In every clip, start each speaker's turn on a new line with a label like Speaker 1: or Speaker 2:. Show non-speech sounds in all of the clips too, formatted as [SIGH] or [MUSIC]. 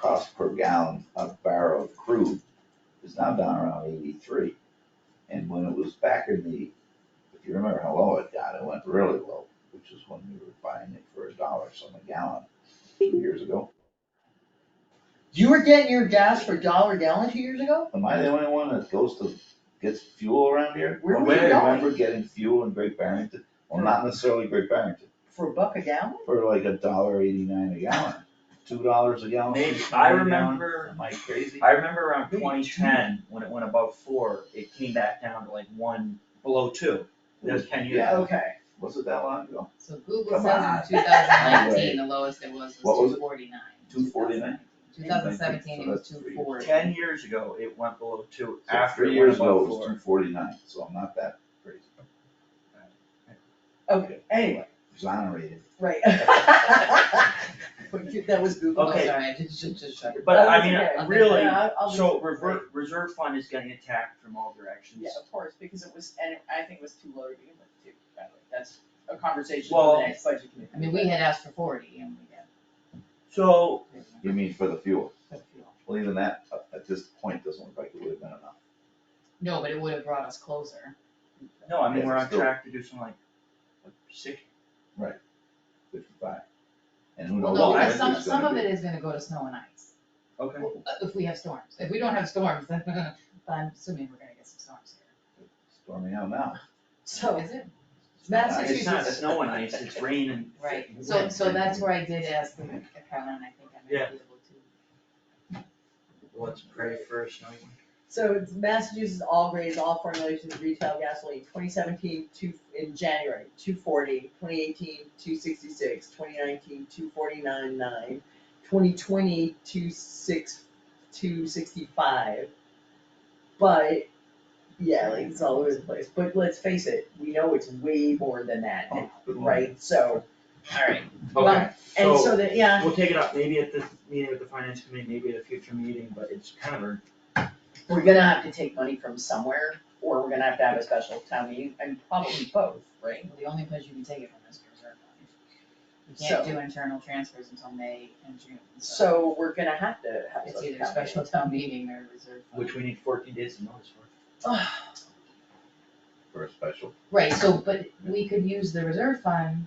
Speaker 1: cost per gallon of barrel of crude is now down around eighty-three. And when it was back in the, if you remember how low it got, it went really low, which is when we were buying it for a dollar some a gallon two years ago.
Speaker 2: You were getting your gas for a dollar a gallon two years ago?
Speaker 1: Am I the only one that goes to, gets fuel around here?
Speaker 2: Where
Speaker 1: Don't
Speaker 2: were you
Speaker 1: you
Speaker 2: going?
Speaker 1: Remember getting fuel in Great Barrington? Well, not necessarily Great Barrington,
Speaker 2: For a buck a gallon?
Speaker 1: for like a dollar eighty-nine a gallon, two dollars a gallon.
Speaker 3: Maybe,
Speaker 1: $2
Speaker 3: I
Speaker 1: a gallon.
Speaker 3: remember,
Speaker 1: Am I crazy?
Speaker 3: I remember around
Speaker 2: Maybe two.
Speaker 3: twenty ten, when it went above four, it came back down to like one, below two. That was ten years
Speaker 1: Yeah.
Speaker 3: ago.
Speaker 2: Okay.
Speaker 1: Was it that long ago?
Speaker 4: So Google
Speaker 1: Come
Speaker 4: says
Speaker 1: on.
Speaker 4: in two thousand [LAUGHS] nineteen, the lowest it was
Speaker 1: What
Speaker 4: was
Speaker 1: was it?
Speaker 4: two
Speaker 1: 249?
Speaker 4: forty-nine. Two thousand seventeen, it was
Speaker 1: So
Speaker 4: two
Speaker 1: that's
Speaker 4: forty.
Speaker 3: Ten years ago, it went below two,
Speaker 1: So
Speaker 3: after
Speaker 1: three
Speaker 3: it went
Speaker 1: years ago,
Speaker 3: above
Speaker 1: it was
Speaker 3: four.
Speaker 1: two forty-nine, so I'm not that crazy.
Speaker 2: Okay, [LAUGHS] anyway,
Speaker 1: Exonerated.
Speaker 2: right. But you- That was Google.
Speaker 3: Okay.
Speaker 4: I'm Oh, sorry, I just, just, just shut it.
Speaker 3: But I
Speaker 2: Okay,
Speaker 3: mean,
Speaker 4: I'll-
Speaker 3: really,
Speaker 2: I'll- I'll be-
Speaker 3: so reserve, reserve fund is getting attacked from all directions.
Speaker 2: Yeah, of course, because it was, and I think it was too low to begin with too, by the way, that's a conversation for
Speaker 3: Well-
Speaker 2: the next budget committee.
Speaker 4: I mean, we had asked for forty and we got.
Speaker 3: So,
Speaker 1: You mean for the fuel?
Speaker 4: but, you know.
Speaker 1: Well, even that, uh, at this point, doesn't look like it would have been enough.
Speaker 4: No, but it would have brought us closer.
Speaker 3: no, I mean,
Speaker 1: Yeah,
Speaker 3: we're on
Speaker 1: still-
Speaker 3: track to do something like, like six,
Speaker 1: Fifty-five. And who
Speaker 4: Well,
Speaker 1: knows
Speaker 4: no,
Speaker 1: what
Speaker 3: I
Speaker 4: because
Speaker 1: winter's
Speaker 3: think
Speaker 4: some,
Speaker 1: gonna
Speaker 4: some of
Speaker 1: be.
Speaker 4: it is gonna go to snow and ice,
Speaker 3: okay.
Speaker 4: if we have storms. If we don't have storms, [LAUGHS] then, but I'm assuming we're gonna get some storms here.
Speaker 1: Storming out
Speaker 4: [LAUGHS]
Speaker 1: now. Oh.
Speaker 2: So,
Speaker 4: Is it?
Speaker 3: It's
Speaker 2: Massachusetts.
Speaker 3: not snow and ice, it's rain and.
Speaker 4: Right, so, so that's where I did ask the accountant, I think I might be
Speaker 3: Yeah.
Speaker 4: able to.
Speaker 3: Let's pray for a snowy one.
Speaker 2: So it's Massachusetts all grades, all formulations of retail gasoline, 2017, two, in January, 240, 2018, 266, 2019, 249.9, 2020, 26, 265. But, yeah, like it's all over the place, but let's face it, we know it's way more than that,
Speaker 1: Oh, good lord.
Speaker 2: right? So, alright,
Speaker 3: Okay,
Speaker 2: and
Speaker 3: so
Speaker 2: so that, yeah,
Speaker 3: we'll take it up maybe at the meeting with the finance committee, maybe at a future meeting, but it's kind of a
Speaker 2: we're gonna have to take money from somewhere, or we're gonna have to have a special town meeting, and probably both, right?
Speaker 4: Well, The only place you can take it from is the reserve fund. You
Speaker 2: So-
Speaker 4: can't do internal transfers until May and June, so
Speaker 2: So we're gonna have to have
Speaker 4: it's
Speaker 2: a
Speaker 4: either special town meeting or reserve fund.
Speaker 3: Which we need fourteen days to notice for.
Speaker 1: For a special.
Speaker 4: Right, so, but we could use the reserve fund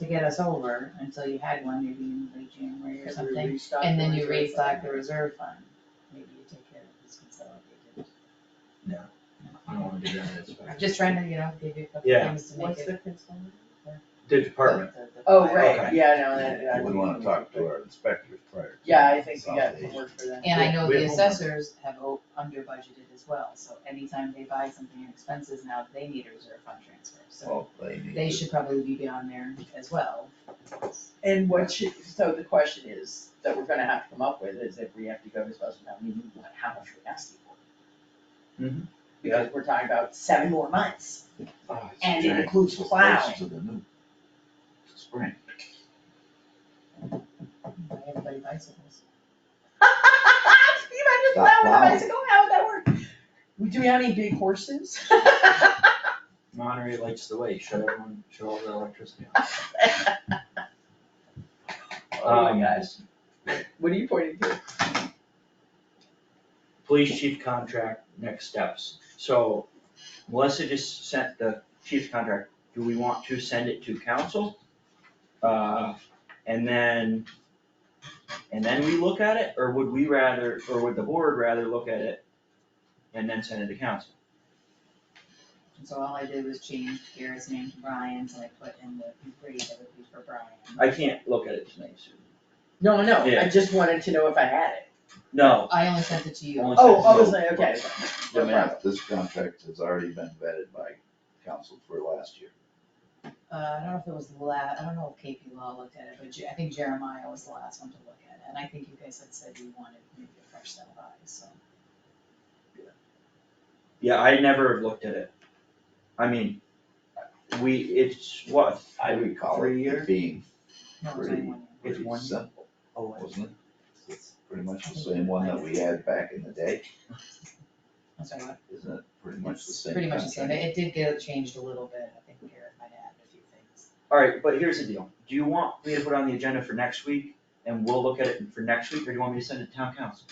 Speaker 4: to get us over until you had one, maybe in late January or something. And then you restock the reserve fund, maybe you take care of this consolidated.
Speaker 3: I don't wanna do that, that's fine.
Speaker 4: I'm just trying to, you know, give you a couple
Speaker 3: Yeah.
Speaker 4: things to make
Speaker 2: What's
Speaker 4: it.
Speaker 2: the concern?
Speaker 3: The department,
Speaker 4: the- the- the
Speaker 2: Oh,
Speaker 4: file.
Speaker 2: right,
Speaker 3: Okay.
Speaker 2: yeah, no, that, I
Speaker 1: I wouldn't wanna talk to our inspectors prior. to
Speaker 2: Yeah, I think we got some
Speaker 1: consolidation.
Speaker 2: work for that.
Speaker 4: And I know
Speaker 3: We
Speaker 4: the
Speaker 3: have homework.
Speaker 4: assessors have o- under budgeted as well, so anytime they buy something in expenses now, they need a reserve fund transfer, so
Speaker 1: Well, they need
Speaker 4: they
Speaker 1: to-
Speaker 4: should probably be on there as well.
Speaker 2: And what should, so the question is, that we're gonna have to come up with, is if we have to go to special town meeting, what, how much we're asking for?
Speaker 1: Mm-hmm.
Speaker 3: Mhm.
Speaker 2: Because we're talking about seven more months, [LAUGHS]
Speaker 1: Oh, it's
Speaker 2: and it
Speaker 1: giant.
Speaker 2: includes
Speaker 1: It's
Speaker 2: plowing.
Speaker 1: close to the new Spring.
Speaker 4: Buy everybody bicycles.
Speaker 2: Steve, I just
Speaker 1: Stop
Speaker 2: laughed when I
Speaker 1: plowing.
Speaker 2: said, "Oh, how would that work? Do we have any big horses? [LAUGHS]
Speaker 3: Monterey lights the way, shut everyone, shut all the electricity off.
Speaker 2: Oh
Speaker 3: Um,
Speaker 2: my gosh. What are you pointing to?
Speaker 3: Police chief contract, next steps. So Melissa just sent the chief's contract, do we want to send it to council? Uh, and then, and then we look at it, or would we rather, or would the board rather look at it and then send it to council?
Speaker 4: And so all I did was change Garrett's name to Brian's, and I put in the employee that would be for Brian.
Speaker 3: I can't look at it tonight, Sue.
Speaker 2: No, no,
Speaker 3: Yeah.
Speaker 2: I just wanted to know if I had it.
Speaker 3: No,
Speaker 4: I only sent it to you.
Speaker 3: Only
Speaker 2: Oh,
Speaker 3: sent
Speaker 2: I
Speaker 3: to
Speaker 2: was
Speaker 3: you.
Speaker 2: like, okay.
Speaker 1: Let me
Speaker 2: No
Speaker 1: ask, this contract has already been vetted by council for last year.
Speaker 4: Uh, I don't know if it was the la, I don't know if KP Law looked at it, but Je- I think Jeremiah was the last one to look at it, and I think you guys had said you wanted maybe a fresh set of eyes, so.
Speaker 3: Yeah, I never have looked at it. I mean, we, it's what,
Speaker 1: I recall
Speaker 3: Three
Speaker 1: it
Speaker 3: years?
Speaker 1: being
Speaker 4: No, it's
Speaker 1: Pretty-
Speaker 4: only one year.
Speaker 3: It's
Speaker 1: pretty
Speaker 3: one-
Speaker 1: simple,
Speaker 3: oh, I-
Speaker 1: wasn't it? It's Pretty much the same one that we had back in the day,
Speaker 4: I'm sorry, what?
Speaker 1: isn't it? Pretty much the
Speaker 4: It's
Speaker 1: same.
Speaker 4: Pretty much the same,
Speaker 1: contract.
Speaker 4: it did get changed a little bit, I think Garrett might add a few things.
Speaker 3: All right, but here's the deal. Do you want me to put on the agenda for next week and we'll look at it for next week, or do you want me to send it to town council?